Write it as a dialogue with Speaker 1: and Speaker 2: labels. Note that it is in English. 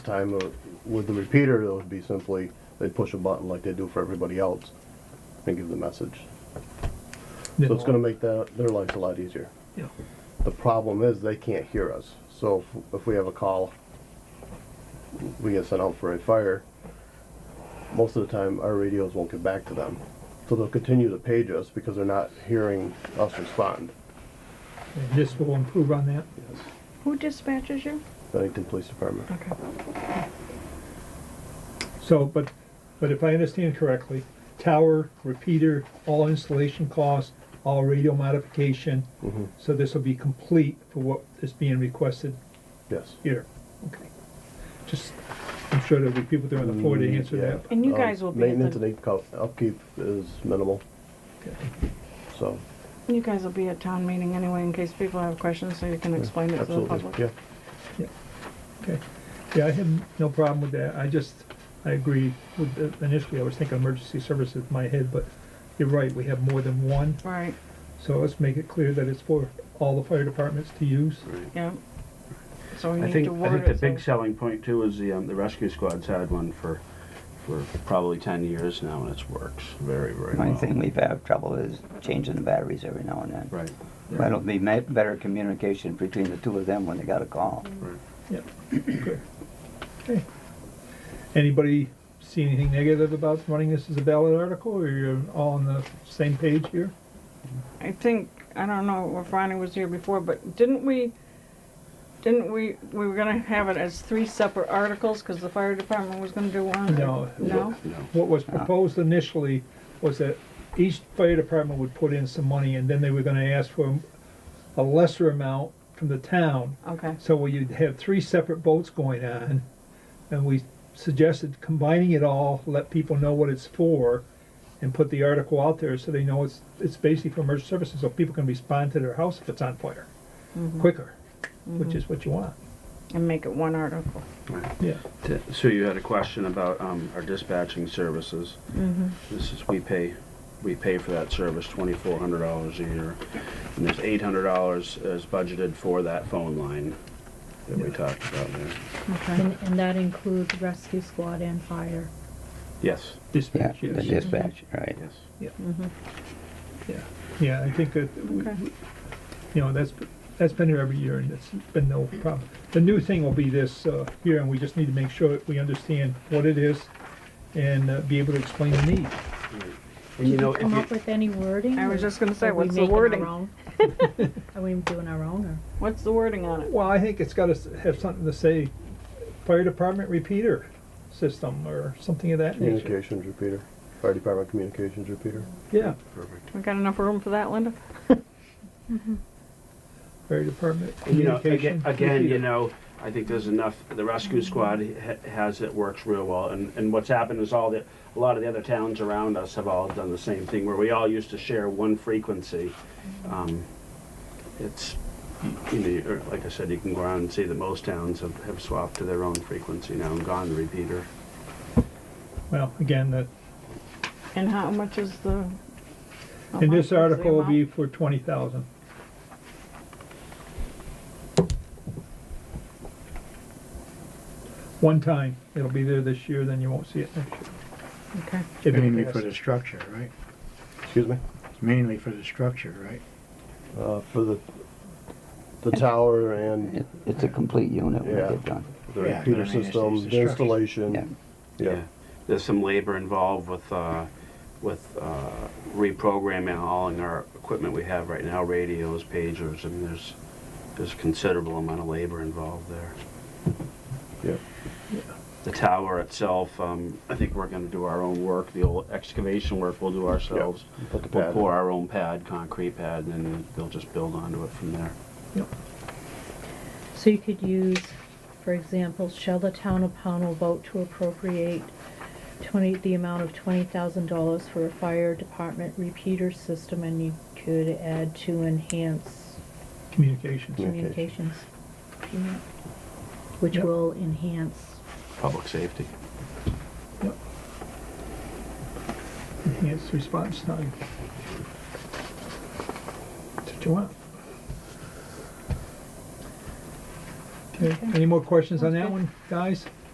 Speaker 1: time uh, with the repeater, it would be simply, they push a button like they do for everybody else and give the message. So it's gonna make that, their lives a lot easier.
Speaker 2: Yeah.
Speaker 1: The problem is they can't hear us. So if, if we have a call, we get sent out for a fire, most of the time our radios won't get back to them. So they'll continue to page us because they're not hearing us respond.
Speaker 2: And this will improve on that.
Speaker 3: Who dispatches you?
Speaker 1: Bennington Police Department.
Speaker 3: Okay.
Speaker 2: So, but, but if I understand correctly, tower, repeater, all installation costs, all radio modification,
Speaker 1: Mhm.
Speaker 2: so this will be complete for what is being requested
Speaker 1: Yes.
Speaker 2: here.
Speaker 3: Okay.
Speaker 2: Just, I'm sure there'll be people there on the floor to answer
Speaker 1: Yeah.
Speaker 2: that.
Speaker 3: And you
Speaker 1: Um,
Speaker 3: guys will be at
Speaker 1: Maintenance and
Speaker 3: the,
Speaker 1: upkeep- upkeep is minimal, so.
Speaker 3: you guys will be at town meeting anyway in case people have questions, so you can explain it to the
Speaker 1: Absolutely,
Speaker 3: public.
Speaker 1: yeah.
Speaker 2: Okay, yeah, I have no problem with that, I just, I agree with, the- initially I was thinking emergency services in my head, but you're right, we have more than one,
Speaker 3: Right,
Speaker 2: so let's make it clear that it's for all the fire departments to use.
Speaker 3: yeah. So we
Speaker 4: I
Speaker 3: need
Speaker 4: think,
Speaker 3: to
Speaker 4: I
Speaker 3: word
Speaker 4: think the
Speaker 3: it
Speaker 4: big
Speaker 3: so.
Speaker 4: selling point too is the, um, the rescue squad's had one for, for probably ten years now and it's works very, very
Speaker 5: Only
Speaker 4: well.
Speaker 5: thing we've had trouble is changing the batteries every now and then.
Speaker 4: Right.
Speaker 5: But it'll be ma- better communication between the two of them when they got a call.
Speaker 2: Yep, good. Okay. Anybody see anything negative about running this as a ballot article, or you're all on the same page here?
Speaker 3: I think, I don't know if Ronnie was here before, but didn't we, didn't we, we were gonna have it as three separate articles, cause the fire department was gonna do one?
Speaker 2: No.
Speaker 3: No?
Speaker 4: No.
Speaker 2: What was proposed initially was that each fire department would put in some money, and then they were gonna ask for a lesser amount from the town.
Speaker 3: Okay,
Speaker 2: So we would have three separate votes going on, and we suggested combining it all, let people know what it's for, and put the article out there so they know it's, it's basically for emergency services, so people can respond to their house if it's on fire quicker, which is what you want.
Speaker 3: and make it one article.
Speaker 2: Yeah.
Speaker 4: T- So you had a question about, um, our dispatching services. This is, we pay, we pay for that service twenty-four hundred dollars a year. And there's eight hundred dollars is budgeted for that phone line that we talked about there.
Speaker 3: Okay,
Speaker 6: And, and that includes rescue squad and fire.
Speaker 4: Yes,
Speaker 5: Yeah,
Speaker 2: Dispatch,
Speaker 5: the
Speaker 2: yes.
Speaker 5: dispatch, right.
Speaker 4: yes.
Speaker 2: Yeah, yeah, I think that, we-
Speaker 3: okay,
Speaker 2: you know, that's, that's been here every year, and it's been no problem. The new thing will be this, uh, here, and we just need to make sure that we understand what it is and uh, be able to explain the need.
Speaker 4: And you
Speaker 6: Did
Speaker 4: know,
Speaker 6: you
Speaker 4: if
Speaker 6: come
Speaker 4: you,
Speaker 6: up with any wording?
Speaker 3: I was
Speaker 6: or
Speaker 3: just gonna say,
Speaker 6: are we
Speaker 3: what's the
Speaker 6: making our
Speaker 3: wording?
Speaker 6: own? Are we doing our own, or?
Speaker 3: what's the wording on it?
Speaker 2: Well, I think it's gotta s- have something to say, fire department repeater system or something of that nature.
Speaker 1: Communications repeater, fire department communications repeater.
Speaker 2: Yeah,
Speaker 4: perfect.
Speaker 3: We got enough room for that, Linda?
Speaker 2: fire department
Speaker 4: You know, again,
Speaker 2: communication.
Speaker 4: again,
Speaker 2: repeater.
Speaker 4: you know, I think there's enough, the rescue squad ha- has it, works real well, and, and what's happened is all the, a lot of the other towns around us have all done the same thing, where we all used to share one frequency. Um, It's, you know, you're- like I said, you can go around and see that most towns have, have swapped to their own frequency now and gone repeater.
Speaker 2: Well, again, that,
Speaker 3: And how much is the? how
Speaker 2: and
Speaker 3: much
Speaker 2: this
Speaker 3: is the
Speaker 2: article will
Speaker 3: amount?
Speaker 2: be for twenty thousand. One time, it'll be there this year, then you won't see it next year.
Speaker 3: Okay.
Speaker 2: if it
Speaker 7: Mainly for
Speaker 2: passes.
Speaker 7: the structure, right?
Speaker 1: Excuse me?
Speaker 7: Mainly for the structure, right?
Speaker 1: Uh, for the, the tower and
Speaker 5: It, it's a complete unit when
Speaker 1: Yeah.
Speaker 5: they get done.
Speaker 1: the
Speaker 7: Yeah,
Speaker 1: repeater
Speaker 7: I mean, it's-
Speaker 1: system,
Speaker 7: it's
Speaker 1: the
Speaker 7: a structure.
Speaker 5: Yeah.
Speaker 1: installation. Yeah,
Speaker 4: There's some labor involved with, uh, with uh, reprogramming all in our equipment we have right now, radios, pagers, I mean, there's, there's considerable amount of labor involved there.
Speaker 1: yeah.
Speaker 4: The tower itself, um, I think we're gonna do our own work, the old excavation work we'll do ourselves.
Speaker 1: Put the
Speaker 4: We'll
Speaker 1: pad.
Speaker 4: pour
Speaker 1: in.
Speaker 4: our own pad, concrete pad, and then they'll just build onto it from there.
Speaker 6: So you could use, for example, shall the town of Pownell vote to appropriate twenty, the amount of twenty thousand dollars for a fire department repeater system, and you could add to enhance
Speaker 2: Communications.
Speaker 6: communications. Which
Speaker 2: Yep.
Speaker 6: will enhance
Speaker 4: Public safety.
Speaker 2: Yep. Enhanced response time. That's what you want. Okay, any more questions on that one, guys?